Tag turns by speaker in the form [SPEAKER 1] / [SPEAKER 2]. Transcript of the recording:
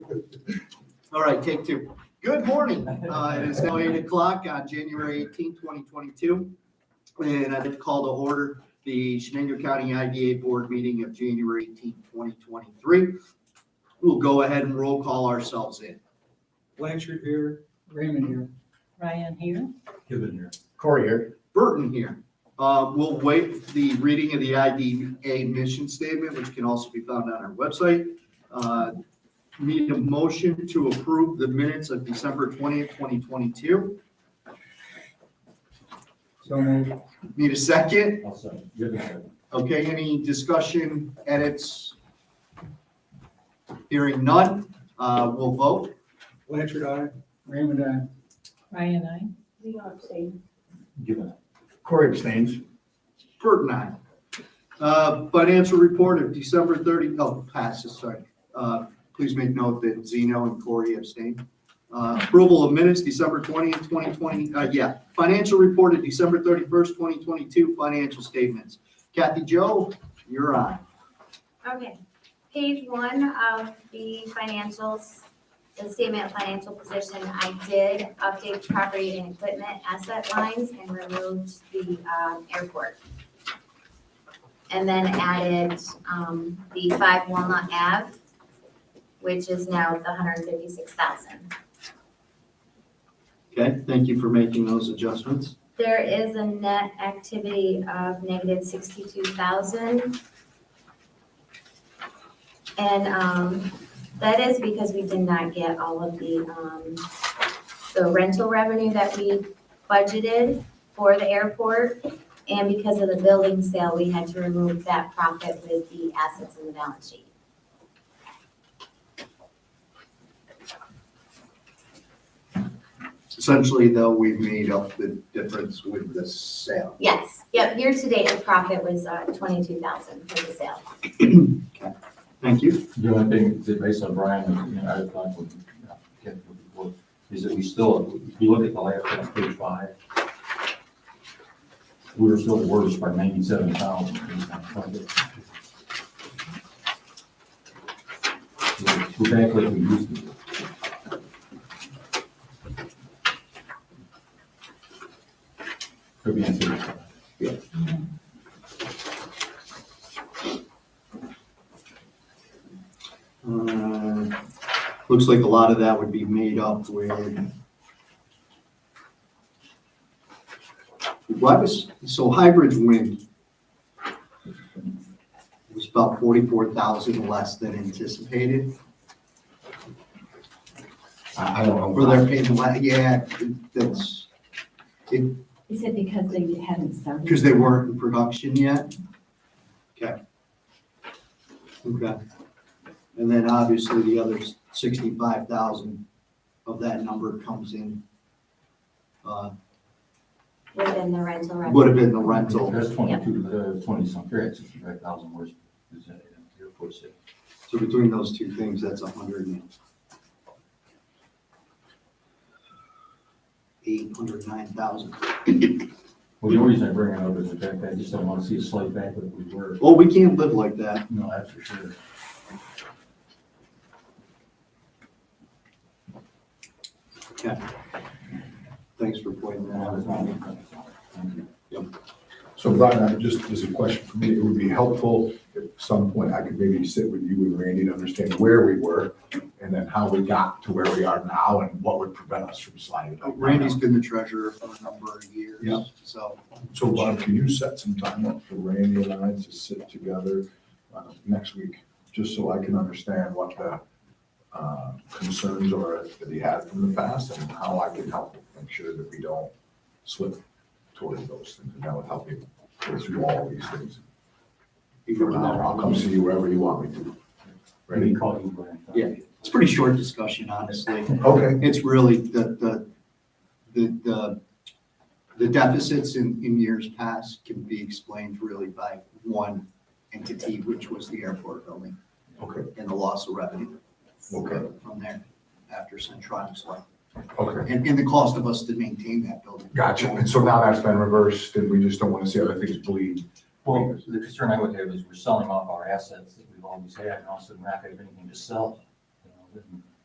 [SPEAKER 1] All right, take two. Good morning. Uh, It is now eight o'clock on January 18, 2022. And I'd like to call to order the Shenango County IDA Board meeting of January 18, 2023. We'll go ahead and roll call ourselves in.
[SPEAKER 2] Blanchard here, Raymond here.
[SPEAKER 3] Ryan here.
[SPEAKER 2] Given here.
[SPEAKER 4] Corey here.
[SPEAKER 1] Burton here. Uh, We'll waive the reading of the IDA mission statement, which can also be found on our website. Uh, Need a motion to approve the minutes of December 20th, 2022.
[SPEAKER 2] So moved.
[SPEAKER 1] Need a second?
[SPEAKER 4] I'll second. Given here.
[SPEAKER 1] Okay, any discussion, edits? Hearing none, uh, we'll vote.
[SPEAKER 2] Blanchard, aye. Raymond, aye.
[SPEAKER 3] Ryan, I.
[SPEAKER 5] Leo abstained.
[SPEAKER 4] Given. Corey abstains.
[SPEAKER 1] Burton, aye. Uh, financial report of December 30 oh passes, sorry. Uh, please make note that Zeno and Corey abstained. Uh, approval of minutes, December twentieth, twenty twenty, uh, yeah, financial report of December thirty-first, twenty twenty-two, financial statements. Kathy Joe, you're on.
[SPEAKER 5] Okay, page one of the financials, the statement of financial position, I did update property and equipment asset lines and removed the, um, airport. And then added, um, the five Walnut Ave, which is now the hundred and fifty-six thousand.
[SPEAKER 1] Okay, thank you for making those adjustments.
[SPEAKER 5] There is a net activity of negative sixty-two thousand. And, um, that is because we did not get all of the, um, the rental revenue that we budgeted for the airport. And because of the building sale, we had to remove that profit with the assets in the balance sheet.
[SPEAKER 1] Essentially, though, we've made up the difference with the sale.
[SPEAKER 5] Yes, yep, year-to-date, the profit was, uh, twenty-two thousand for the sale.
[SPEAKER 1] Thank you.
[SPEAKER 6] The only thing that based on Brian, and you know, I thought, when, you know, Ken, before, is that we still, if you look at the last one, page five, we were still the worst by ninety-seven thousand. We're back like we used to. be. Could be answered.
[SPEAKER 1] Uh, Looks like a lot of that would be made up with. Why was, so Highbridge Wind was about forty-four thousand less than anticipated,
[SPEAKER 4] I, I don't know.
[SPEAKER 1] or they're paying, le- yeah, that's,
[SPEAKER 3] He said because they hadn't started.
[SPEAKER 1] because they weren't in production yet? Okay. Okay. And then obviously the other sixty-five thousand of that number comes in. uh,
[SPEAKER 5] Within the rental revenue.
[SPEAKER 1] Would have been the rental,
[SPEAKER 6] That's twenty-two, uh, twenty-something, that's sixty-five thousand worse. than the airport said.
[SPEAKER 1] so between those two things, that's a hundred and eight hundred nine thousand.
[SPEAKER 6] Well, the only reason I bring it up is the fact that I just don't want to see a slight back that we were.
[SPEAKER 1] Oh, we can't live like that.
[SPEAKER 6] No, that's for sure.
[SPEAKER 1] Thanks for pointing that
[SPEAKER 6] No,
[SPEAKER 1] out.
[SPEAKER 6] it's not me. Thank you.
[SPEAKER 7] So Brian, I just, as a question for me, it would be helpful if at some point I could maybe sit with you and Randy to understand where we were and then how we got to where we are now and what would prevent us from sliding. up.
[SPEAKER 1] Randy's been the treasurer for a number of years.
[SPEAKER 7] Yeah.
[SPEAKER 1] So,
[SPEAKER 7] So Bob, can you set some time up for Randy and I to sit together uh, next week? Just so I can understand what the uh, concerns are that he had from the past and how I can help make sure that we don't slip toward those things. And that would help you go through all these things.
[SPEAKER 1] even
[SPEAKER 7] Or
[SPEAKER 1] now,
[SPEAKER 7] not, I'll come see you wherever you want me to.
[SPEAKER 6] Let me
[SPEAKER 7] Ready?
[SPEAKER 6] call you, Brian.
[SPEAKER 1] Yeah. it's a pretty short discussion, honestly.
[SPEAKER 7] Okay,
[SPEAKER 1] It's really the, the, the, the, the deficits in, in years past can be explained really by one entity, which was the airport building
[SPEAKER 7] okay,
[SPEAKER 1] and the loss of revenue
[SPEAKER 7] okay,
[SPEAKER 1] from there after Centronics left.
[SPEAKER 7] okay.
[SPEAKER 1] And, and the cost of us to maintain that building.
[SPEAKER 7] Gotcha. And so now that's been reversed and we just don't want to see other things bleed.
[SPEAKER 6] Well, the concern I would have is we're selling off our assets that we've always had, and also we're not gonna have anything to sell. you know, and